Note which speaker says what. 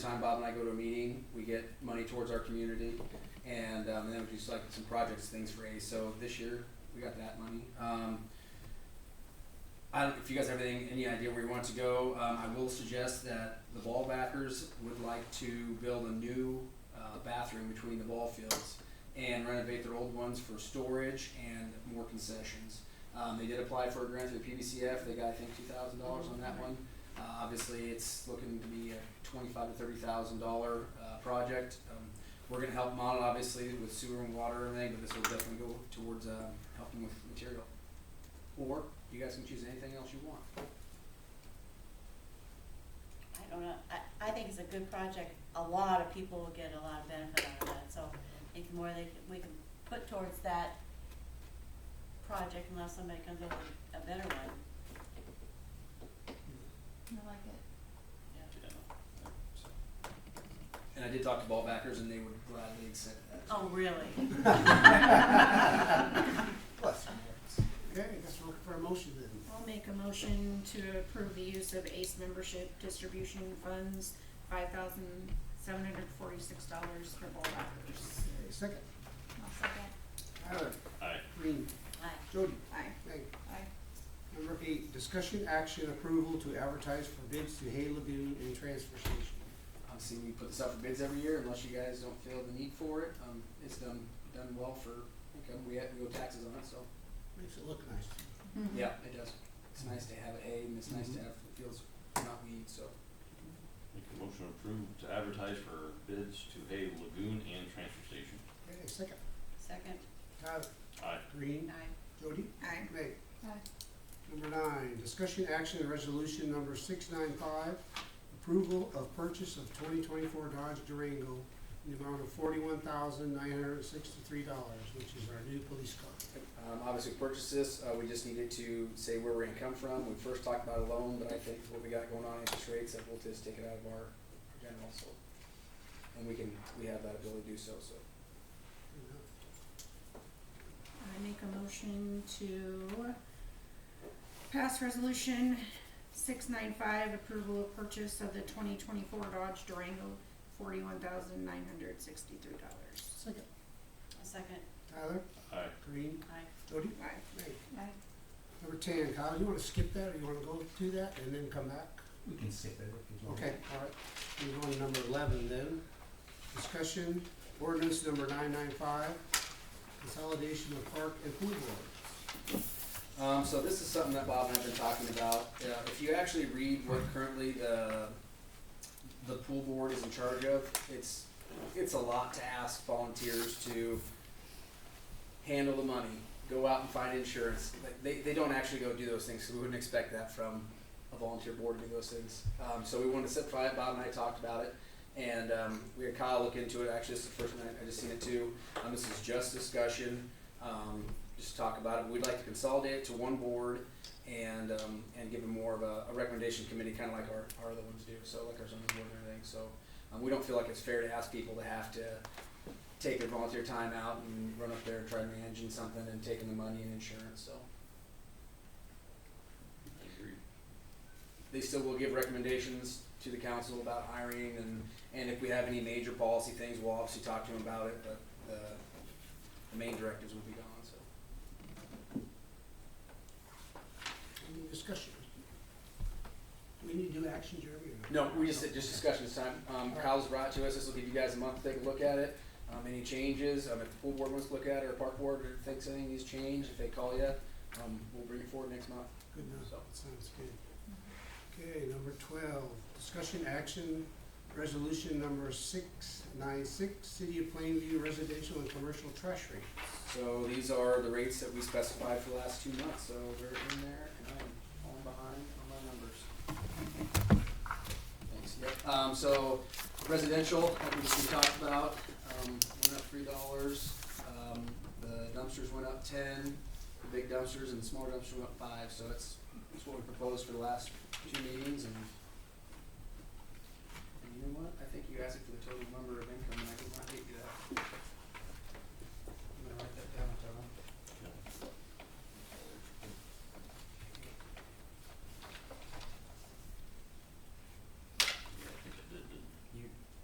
Speaker 1: time Bob and I go to a meeting, we get money towards our community, and, um, then we do like some projects, things for Ace, so this year, we got that money. Um, I don't, if you guys have anything, any idea where you want to go, um, I will suggest that the ball backers would like to build a new, uh, bathroom between the ball fields and renovate their old ones for storage and more concessions. Um, they did apply for a grant through PBCF, they got, I think, two thousand dollars on that one. Uh, obviously, it's looking to be a twenty-five to thirty thousand dollar, uh, project. Um, we're gonna help Mon, obviously, with sewer and water and everything, but this will definitely go towards, uh, helping with material. Or you guys can choose anything else you want.
Speaker 2: I don't know, I, I think it's a good project, a lot of people will get a lot of benefit out of that, so I think the more they, we can put towards that project unless somebody comes up with a better one,
Speaker 3: I like it.
Speaker 2: yeah.
Speaker 1: And I did talk to ball backers and they would gladly accept that.
Speaker 2: Oh, really?
Speaker 4: Bless you. Okay, I guess we'll look for a motion then.
Speaker 5: I'll make a motion to approve the use of ACE membership distribution funds, five thousand seven hundred forty-six dollars for ball wrappers.
Speaker 4: Okay, Second,
Speaker 3: I'll second.
Speaker 4: Tyler,
Speaker 6: Aye.
Speaker 4: Green,
Speaker 2: Aye.
Speaker 4: Jody,
Speaker 5: Aye.
Speaker 4: Meg.
Speaker 3: Aye.
Speaker 4: Number eight, discussion action approval to advertise for bids to Hay Lagoon and transfer station.
Speaker 1: Obviously, we put this out for bids every year unless you guys don't feel the need for it. Um, it's done, done well for income. We have, we owe taxes on it, so.
Speaker 4: Makes it look nice.
Speaker 5: Mm-hmm.
Speaker 1: Yeah, it does. It's nice to have it hay and it's nice to have the fields not weed, so.
Speaker 6: Make a motion to approve to advertise for bids to Hay Lagoon and Transfer Station.
Speaker 4: Okay, second,
Speaker 2: Second,
Speaker 4: Tyler,
Speaker 6: Aye.
Speaker 4: Green,
Speaker 2: aye.
Speaker 4: Jody,
Speaker 5: Aye.
Speaker 4: Meg.
Speaker 3: Aye.
Speaker 4: Number nine, discussion action and resolution number six nine five, approval of purchase of twenty twenty-four Dodge Durango in the amount of forty-one thousand nine hundred sixty-three dollars, which is our new police car.
Speaker 1: Um, obviously, we purchased this, uh, we just needed to say where we're gonna come from. We first talked about a loan, but I think what we got going on interest rates, that we'll just take it out of our general, so. And we can, we have that ability to do so, so.
Speaker 5: I make a motion to pass resolution six nine five, approval of purchase of the twenty twenty-four Dodge Durango, forty-one thousand nine hundred sixty-three dollars.
Speaker 4: Second,
Speaker 2: A second,
Speaker 4: Tyler,
Speaker 6: Aye.
Speaker 4: Green,
Speaker 2: aye.
Speaker 4: Jody,
Speaker 5: Aye.
Speaker 4: Meg.
Speaker 3: Aye.
Speaker 4: Number ten, Kyle, you wanna skip that, or you wanna go through that and then come back?
Speaker 7: We can skip it if you
Speaker 1: Mm-hmm.
Speaker 7: want.
Speaker 4: Okay, all right, we're going to number eleven then. Discussion, ordinance number nine nine five, consolidation of park and pool boards.
Speaker 1: Um, so this is something that Bob and I've been talking about. Uh, if you actually read what currently the the pool board is in charge of, it's it's a lot to ask volunteers to handle the money, go out and find insurance. Like, They, they don't actually go do those things, so we wouldn't expect that from a volunteer board to do those things. Um, so we wanted to simplify it. Bob and I talked about it, and um, we had Kyle look into it. Actually, this is the first one I, I just seen it too. Um, this is just discussion. Um, just talk about it. We'd like to consolidate it to one board and, um, and give them more of a, a recommendation committee, kind of like our, our other ones do, so like our zoning board and everything, so. Um, we don't feel like it's fair to ask people to have to take their volunteer time out and run up there and try managing something and taking the money and insurance, so.
Speaker 6: Agreed.
Speaker 1: They still will give recommendations to the council about hiring and, and if we have any major policy things, we'll obviously talk to them about it, but the, the main directives will be gone, so.
Speaker 4: Any discussion? Do we need to do action, Jeremy? or
Speaker 1: No, we just, just discussion this time. Um, Kyle's brought it to us, this will give you guys a month to take a look at it. Um, any changes, um, if the pool board wants to look at it, or park board, or thinks anything needs changed, if they call you, um, we'll bring it forward next month.
Speaker 4: Good enough,
Speaker 1: So.
Speaker 4: sounds good. Okay, number twelve, discussion action, resolution number six nine six, city of Plainview residential and commercial trash rate.
Speaker 1: So these are the rates that we specified for the last two months, so they're in there, and I'm falling behind on my numbers. Thanks, yep, um, so residential, like we just talked about, um, went up three dollars, um, the dumpsters went up ten, the big dumpsters and the smaller dumpsters went up five, so that's, that's what we proposed for the last two meetings, and